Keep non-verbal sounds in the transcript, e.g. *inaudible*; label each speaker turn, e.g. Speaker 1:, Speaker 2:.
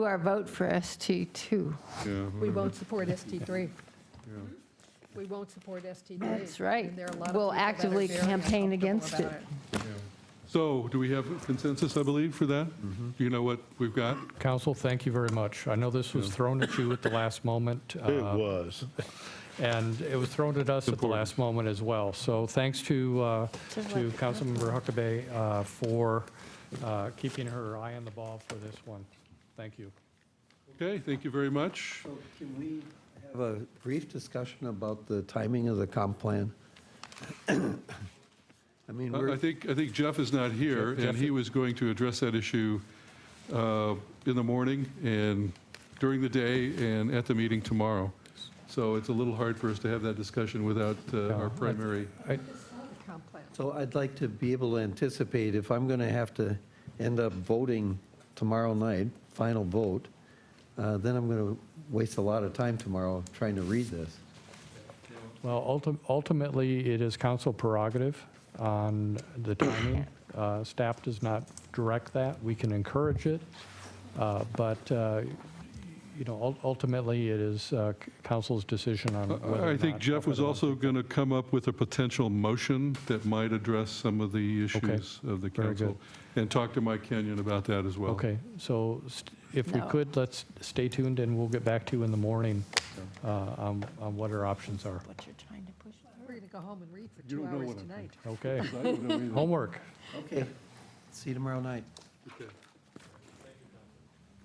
Speaker 1: our vote for ST2.
Speaker 2: Yeah,
Speaker 3: We won't support ST3. We won't support ST3.
Speaker 1: That's right.
Speaker 3: And there are a lot of
Speaker 1: We'll
Speaker 3: people that are
Speaker 1: actively
Speaker 3: very
Speaker 1: campaign
Speaker 3: uncomfortable
Speaker 1: against
Speaker 3: about
Speaker 1: it.
Speaker 2: So do we have consensus, I believe, for that?
Speaker 4: Mm-hmm.
Speaker 2: Do you know what we've got?
Speaker 4: Council, thank you very much. I know this was thrown at you at the last moment.
Speaker 5: *laughs* It
Speaker 4: uh,
Speaker 5: was.
Speaker 4: And it was thrown at us at the
Speaker 2: Important.
Speaker 4: last moment as well. So thanks to, uh, to Councilmember Huckabee uh, for uh, keeping her eye on the ball for this one. Thank you.
Speaker 2: Okay, thank you very much.
Speaker 6: So Can we have a brief discussion about the timing of the comp plan? *coughs* I mean,
Speaker 2: I I
Speaker 6: we're,
Speaker 2: think, I think Jeff is not here, and he was going to address that issue uh, in the morning and during the day and at the meeting tomorrow. So it's a little hard for us to have that discussion without uh, our primary.
Speaker 4: I-
Speaker 3: it. Comp plan.
Speaker 6: so I'd like to be able to anticipate if I'm going to have to end up voting tomorrow night, final vote, uh, then I'm going to waste a lot of time tomorrow trying to read this.
Speaker 4: Well, ulti- ultimately, it is council prerogative on the timing. Uh, Staff does not direct that. We can encourage it, uh, but, uh, you know, ul- ultimately, it is uh, c- council's decision on whether or
Speaker 2: Uh, I- I think
Speaker 4: not-
Speaker 2: Jeff was also going to come up with a potential motion that might address some of the issues of the
Speaker 4: very
Speaker 2: council. And talk to Mike Kenyon about that as well.
Speaker 4: Okay, so st- if we
Speaker 1: No.
Speaker 4: could, let's stay tuned, and we'll get back to you in the morning uh, on on what our options are.
Speaker 1: What you're trying to push.
Speaker 3: We're going to go home and read for
Speaker 2: don't
Speaker 3: two
Speaker 2: know
Speaker 3: hours
Speaker 2: what I'm
Speaker 3: tonight.
Speaker 4: Okay,
Speaker 2: I don't know either.
Speaker 4: homework.
Speaker 6: Okay. See you tomorrow night.
Speaker 2: Okay.